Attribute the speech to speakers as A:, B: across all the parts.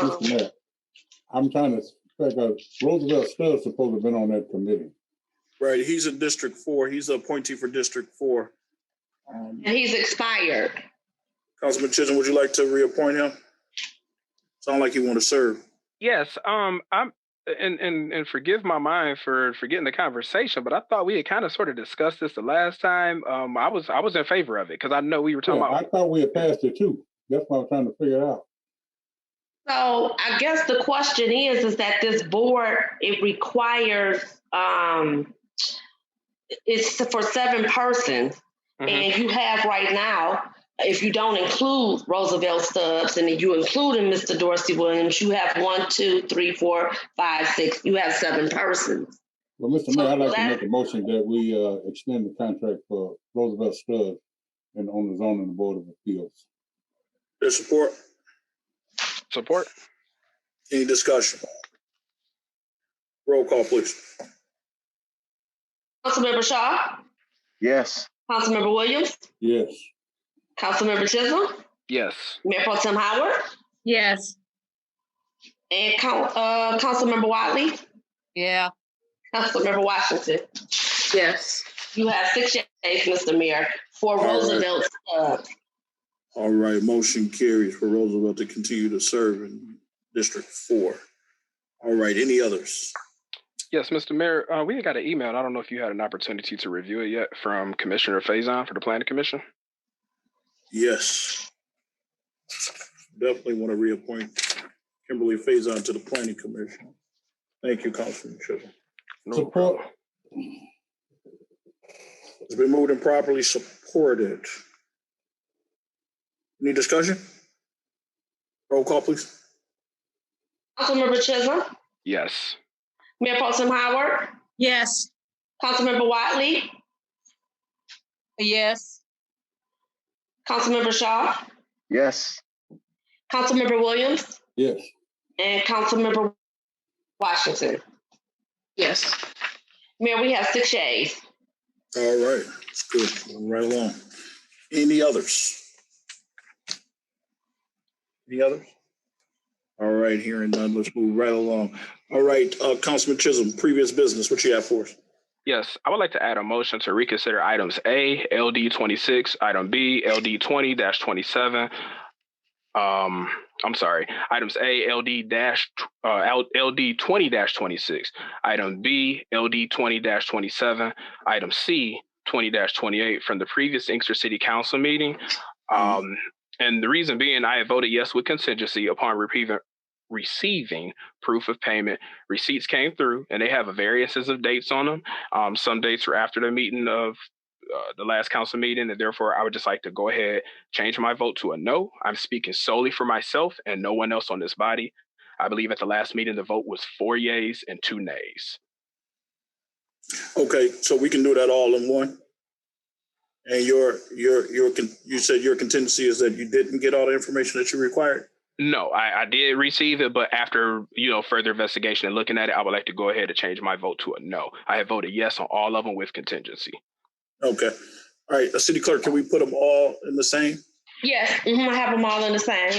A: Mr. Mayor, I'm trying to figure out, Roosevelt Stubbs supposed to have been on that committee.
B: Right, he's in District Four. He's the appointee for District Four.
A: Um,
C: And he's expired.
B: Councilman Chisholm, would you like to reappoint him? Sound like you want to serve.
D: Yes, um, I'm and and and forgive my mind for forgetting the conversation, but I thought we had kind of sort of discussed this the last time. Um, I was I was in favor of it because I know we were talking
A: yeah, I
D: about.
A: thought we had passed it too. That's what I'm trying to figure out.
C: So I guess the question is, is that this board, it requires, um, it's for seven persons.
D: Mhm.
C: And you have right now, if you don't include Roosevelt Stubbs and if you include in Mr. Dorsey Williams, you have one, two, three, four, five, six, you have seven persons.
A: Well, Mr. Mayor, I'd like to
C: That-
A: make a motion that we uh, extend the contract for Roosevelt Stubbs and on the zoning board of appeals.
B: There's support?
D: Support.
B: Any discussion? Roll call, please.
C: Councilmember Shaw,
E: Yes.
C: Councilmember Williams,
A: Yes,
C: Councilmember Chisholm,
D: Yes.
C: Mayor Pro Tem Howard,
F: Yes.
C: and Coun- uh, Councilmember Wiley,
F: Yeah.
C: Councilmember Washington.
F: Yes.
C: You have six yeas, Mr. Mayor, for
B: right.
C: Roosevelt uh, Stubbs.
B: All right, motion carries for Roosevelt to continue to serve in District Four. All right, any others?
D: Yes, Mr. Mayor, uh, we had got an email. and I don't know if you had an opportunity to review it yet from Commissioner Faison for the Planning Commission.
B: Yes. Definitely want to reappoint Kimberly Faison to the Planning Commission. Thank you, Councilman Chisholm.
D: No
A: Support.
D: problem.
B: It's been moved and properly supported. Any discussion? Roll call, please.
C: Councilmember Chisholm,
D: Yes.
C: Mayor Pro Tem Howard,
F: Yes.
C: Councilmember Wiley,
F: Yes.
C: Councilmember Shaw,
E: Yes.
C: Councilmember Williams,
A: yes.
C: and Councilmember Washington.
F: Yes.
C: Mayor, we have six yeas.
B: All right, it's good. Moving Right along. Any others? Any others? All right, hearing none, let's move right along. All right, uh, Councilman Chisholm, previous business, what you have for us?
D: Yes, I would like to add a motion to reconsider items A, LD twenty-six, item B, LD twenty twenty-seven. Um, I'm sorry, items A, LD dash, uh, L- LD twenty twenty-six, item B, LD twenty twenty-seven, item C, twenty twenty-eight from the previous Inkster City Council meeting. Um, and the reason being, I had voted yes with contingency upon receiving, receiving proof of payment. Receipts came through and they have variances of dates on them. Um, some dates were after the meeting of uh, the last council meeting, and therefore I would just like to go ahead, change my vote to a no. I'm speaking solely for myself and no one else on this body. I believe at the last meeting, the vote was four yays and two nays.
B: Okay, so we can do that all in one? And your, your, your, con- you said your contingency is that you didn't get all the information that you required?
D: No, I, I did receive it, but after you know further investigation and looking at it, I would like to go ahead and change my vote to a no. I have voted yes on all of them with contingency.
B: Okay, all right, uh, City Clerk, can we put them all in the same?
C: Yes, mhm, I have them all in the same.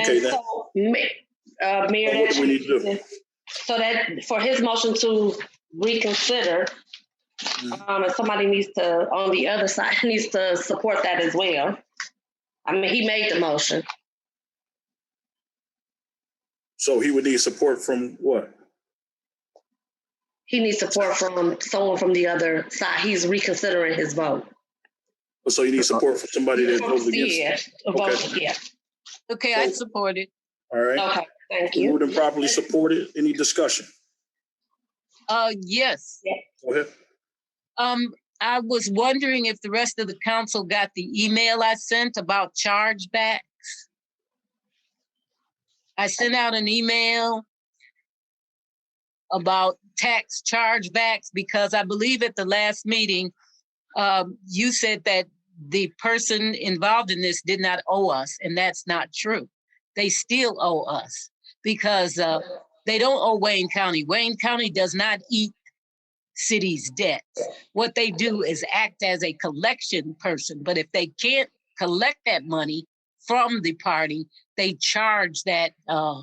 B: Okay,
C: And
B: then,
C: so, Ma- uh, Mayor,
B: What do we need to do?
C: So that, for his motion to reconsider, um, and somebody needs to, on the other side, needs to support that as well. I mean, he made the motion.
B: so he would need support from what?
C: He needs support from someone from the other side. He's reconsidering his vote.
B: So you need support from somebody that goes against?
C: Yeah, a vote, yeah.
F: Okay, I support it.
B: All right,
C: Okay, Oh, thank you.
B: moved and properly supported, any discussion?
F: Uh, yes.
B: Go ahead.
F: Um, I was wondering if the rest of the council got the email I sent about chargebacks. I sent out an email about tax chargebacks because I believe at the last meeting, um, you said that the person involved in this did not owe us, and that's not true. They still owe us because, uh, they don't owe Wayne County. Wayne County does not eat city's debt. What they do is act as a collection person, but if they can't collect that money from the party, they charge that uh,